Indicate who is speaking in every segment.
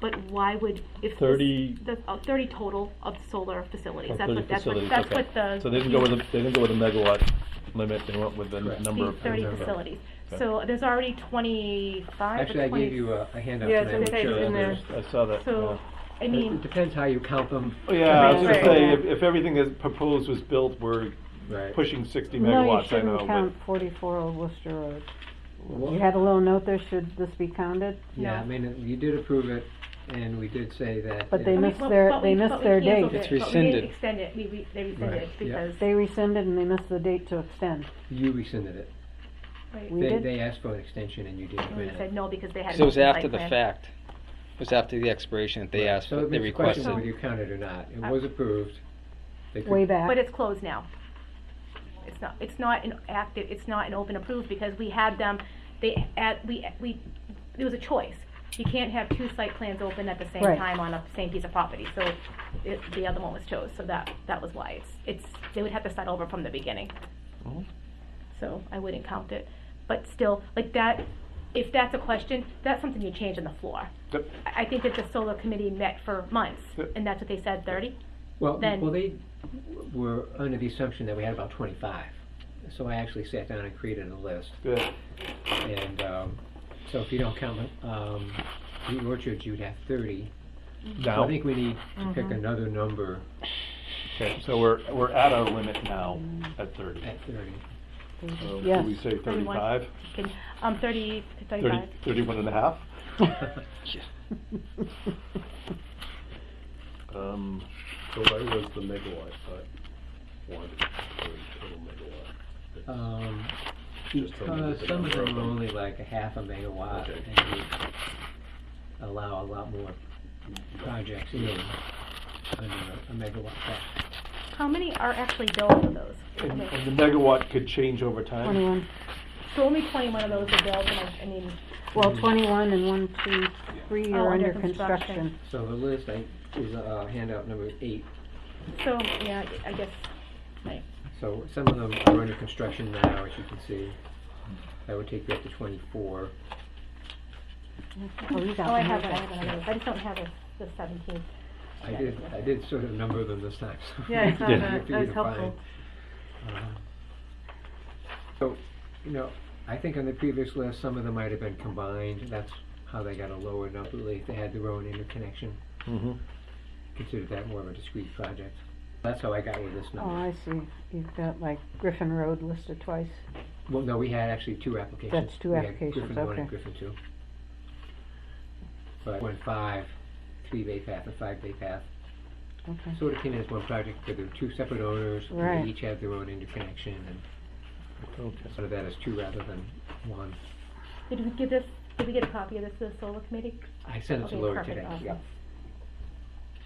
Speaker 1: But why would, if. this-
Speaker 2: 30
Speaker 1: The, oh, thirty total of solar facilities,
Speaker 2: Of
Speaker 1: that's
Speaker 2: 30
Speaker 1: what, that's what,
Speaker 2: Oh, facilities,
Speaker 1: that's
Speaker 2: okay.
Speaker 1: what the.
Speaker 2: So they didn't go with, a- they didn't go with a megawatt limit, they went with the
Speaker 3: Correct.
Speaker 2: number of.
Speaker 1: the Thirty
Speaker 2: panels.
Speaker 1: facilities,
Speaker 2: Okay.
Speaker 1: so there's already twenty-five or
Speaker 3: Actually, I gave
Speaker 1: 20
Speaker 3: you a uh, a handout
Speaker 4: Yeah, it's
Speaker 3: tonight. which,
Speaker 4: in there, it's
Speaker 3: uh,
Speaker 4: in there.
Speaker 2: I saw that, yeah.
Speaker 1: So, I
Speaker 3: It
Speaker 1: mean,
Speaker 3: depends how you count them.
Speaker 2: Oh, Yeah, I was gonna
Speaker 4: Right.
Speaker 2: say, if, if everything that's proposed was built, we're
Speaker 3: Right.
Speaker 2: pushing sixty
Speaker 4: No, you
Speaker 2: megawatts, I
Speaker 4: shouldn't
Speaker 2: know,
Speaker 4: count
Speaker 2: but.
Speaker 4: forty-four Old Worcester Road.
Speaker 3: Well,
Speaker 4: You had a little note there, should this be counted?
Speaker 3: Yeah, I mean, it- you did approve it, and we did say that.
Speaker 4: But
Speaker 3: it-
Speaker 4: they
Speaker 1: but we-
Speaker 4: missed
Speaker 1: but-
Speaker 4: their-
Speaker 1: but
Speaker 4: they
Speaker 1: we-
Speaker 4: missed
Speaker 1: but we
Speaker 4: their
Speaker 1: canceled
Speaker 4: date.
Speaker 3: It's
Speaker 1: it, but we didn't
Speaker 3: rescinded.
Speaker 1: extend it, we, re- they rescinded
Speaker 3: Right,
Speaker 1: it
Speaker 3: yeah.
Speaker 1: because,
Speaker 4: They rescinded and they missed the date to extend.
Speaker 3: You rescinded it.
Speaker 1: right,
Speaker 4: We
Speaker 3: They,
Speaker 4: did?
Speaker 3: they asked for an extension and you didn't
Speaker 1: we
Speaker 3: grant it.
Speaker 1: said no because they had.
Speaker 5: So it was
Speaker 1: a site
Speaker 5: after the
Speaker 1: plan.
Speaker 5: fact. It was after the expiration that they
Speaker 3: Right.
Speaker 5: asked,
Speaker 3: So it
Speaker 5: they
Speaker 3: makes a question
Speaker 5: requested.
Speaker 3: Whether you count it or not. It was approved. They could-
Speaker 4: Uh, Way back.
Speaker 1: But it's closed now. It's not, it's not an active, it's not an open approved because we had them, they, at, we, we, it was a choice. You can't have two site plans open at the same
Speaker 4: Right.
Speaker 1: time on a same piece of property, so it, the other one was chose, so that, that was why. It's, it's, they would have to start over from the beginning.
Speaker 2: Mhm.
Speaker 1: So I wouldn't count it, but still, like that, if that's a question, that's something you change on the floor.
Speaker 2: Yep.
Speaker 1: I, I think that the solar committee met for months,
Speaker 2: Yep.
Speaker 1: and that's what they said, thirty?
Speaker 3: Well,
Speaker 1: then-
Speaker 3: well, they were under the assumption that we had about twenty-five. So I actually sat down and created a list.
Speaker 2: Yeah,
Speaker 3: And, um, so if you don't count, um, the orchards, you'd have thirty. So I
Speaker 2: now,
Speaker 3: think we need to pick another number
Speaker 2: okay, so we're, we're at our limit now at thirty.
Speaker 3: at thirty.
Speaker 2: So
Speaker 4: Yes.
Speaker 2: do we say
Speaker 1: Thirty-one.
Speaker 2: thirty-five?
Speaker 1: Can- Um, thirty,
Speaker 2: Thirty,
Speaker 1: thirty-five?
Speaker 2: thirty-one and a half?
Speaker 5: Yeah.
Speaker 2: Um,
Speaker 6: So where was the megawatt, I wanted, or total megawatt?
Speaker 3: Um,
Speaker 6: Just tell me
Speaker 3: because
Speaker 6: the
Speaker 3: some of
Speaker 6: number of
Speaker 3: them are
Speaker 6: them.
Speaker 3: only like a half a megawatt
Speaker 6: Okay.
Speaker 3: and we allow a lot more projects in under a megawatt cap.
Speaker 1: How many are actually built of those?
Speaker 2: and, and the megawatt could change over time?
Speaker 4: Twenty-one,
Speaker 1: So only twenty-one of those are built, and I, I mean,
Speaker 4: well, twenty-one and one, two, three
Speaker 1: Oh,
Speaker 4: are
Speaker 1: under
Speaker 4: under construction.
Speaker 1: construction.
Speaker 3: So the list I, is uh, handout number eight.
Speaker 1: so, yeah, I guess, right.
Speaker 3: So some of them are under construction now, as you can see. That would take you up to twenty-four.
Speaker 4: Oh, you got
Speaker 1: Oh, I
Speaker 4: one.
Speaker 1: have one, I have one, I have one. I just don't have the, the seventeen.
Speaker 3: I did, I did sort of number them this time. so
Speaker 4: Yeah, I saw
Speaker 3: they're
Speaker 4: that.
Speaker 3: easier
Speaker 4: That was
Speaker 3: to find.
Speaker 4: helpful.
Speaker 3: Um, So, you know, I think on the previous list, some of them might have been combined, that's how they got a lower number, like they had their own interconnection,
Speaker 2: Mm-hmm.
Speaker 3: considered that more of a discrete project. That's how I got with this
Speaker 4: Oh,
Speaker 3: number.
Speaker 4: I see, you've got like Griffin Road listed twice.
Speaker 3: Well, no, we had actually two applications.
Speaker 4: That's two
Speaker 3: We had
Speaker 4: applications,
Speaker 3: Griffin one and
Speaker 4: okay.
Speaker 3: Griffin two. But one five, three bay path and five bay path,
Speaker 4: Okay,
Speaker 3: sort of came in as one project, but there were two separate owners, and
Speaker 4: Right.
Speaker 3: they each had their own interconnection, and
Speaker 2: Okay.
Speaker 3: sort of that as two rather than one.
Speaker 1: Did we give this, did we get a copy of this to the solar committee?
Speaker 3: I sent it to
Speaker 1: Okay,
Speaker 3: Lori
Speaker 1: perfect,
Speaker 3: today.
Speaker 1: awesome.
Speaker 3: yeah.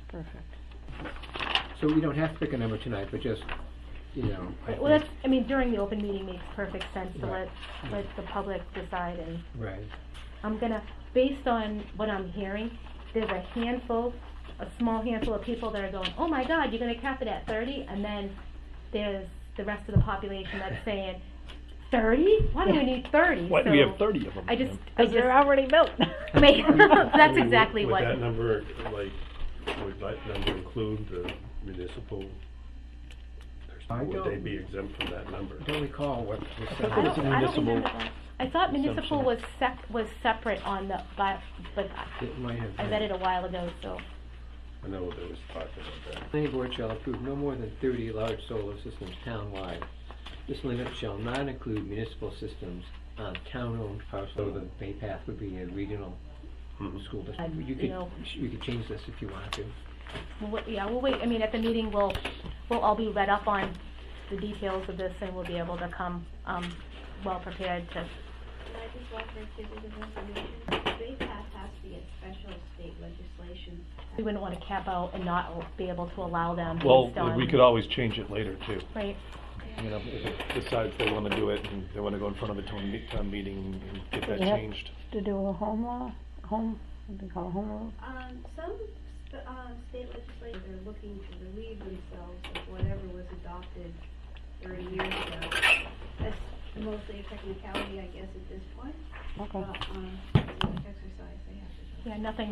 Speaker 4: perfect.
Speaker 3: So we don't have to pick a number tonight, but just, you know. I
Speaker 1: Right, Well,
Speaker 3: think-
Speaker 1: that's, I mean, during the open meeting makes perfect sense to let,
Speaker 3: Right.
Speaker 1: let the public decide and
Speaker 3: Right,
Speaker 1: I'm gonna, based on what I'm hearing, there's a handful, a small handful of people that are going, oh my god, you're gonna cap it at thirty, and then there's the rest of the population that's saying, thirty? Why do we need thirty?
Speaker 2: Why do we have thirty of them?
Speaker 1: I just,
Speaker 2: yeah.
Speaker 1: I just,
Speaker 4: already built.
Speaker 1: Wait, that's
Speaker 6: Would-
Speaker 1: exactly
Speaker 6: Would that
Speaker 1: what,
Speaker 6: number, like, would that number include the municipal?
Speaker 3: I
Speaker 6: Would they
Speaker 3: don't-
Speaker 6: be exempt from that number?
Speaker 3: I don't recall what was
Speaker 2: I
Speaker 1: I
Speaker 2: thought it was
Speaker 1: don't,
Speaker 2: a
Speaker 1: I
Speaker 3: said.
Speaker 1: don't
Speaker 2: municipal.
Speaker 1: remember that. I thought municipal
Speaker 2: assumption.
Speaker 1: was sep, was separate on the, but, but I-
Speaker 3: It might have
Speaker 1: I read
Speaker 3: been.
Speaker 1: it a while ago, so.
Speaker 6: I know there was talk about that.
Speaker 3: Planning board shall approve no more than thirty large solar systems townwide. This limit shall not include municipal systems on town-owned parcels. So the Bay Path would be a regional
Speaker 6: Mm-hmm.
Speaker 3: school district.
Speaker 1: Um,
Speaker 3: You
Speaker 1: you
Speaker 3: could,
Speaker 1: know-
Speaker 3: you could change this if you wanted to.
Speaker 1: Well, wait- yeah, we'll wait, I mean, at the meeting, we'll, we'll all be read up on the details of this, and we'll be able to come, um, well-prepared to,
Speaker 7: Can I just walk right through the resolution? Bay Path has to be a special state legislation.
Speaker 1: we wouldn't want to cap out and not be able to allow them based
Speaker 2: Well,
Speaker 1: on.
Speaker 2: we could always change it later too.
Speaker 1: Right,
Speaker 2: You know, if it decides they wanna do it and they wanna go in front of a town, me- town meeting and get that
Speaker 4: Yeah.
Speaker 2: changed.
Speaker 4: To do a home law, home, what do they call it, home rule?
Speaker 7: Um, some, st- uh, state legislators are looking to relieve themselves of whatever was adopted thirty years ago. That's mostly a technicality, I guess, at this point,
Speaker 4: Okay.
Speaker 7: but, um, it's an exercise they have to do.
Speaker 1: yeah, nothing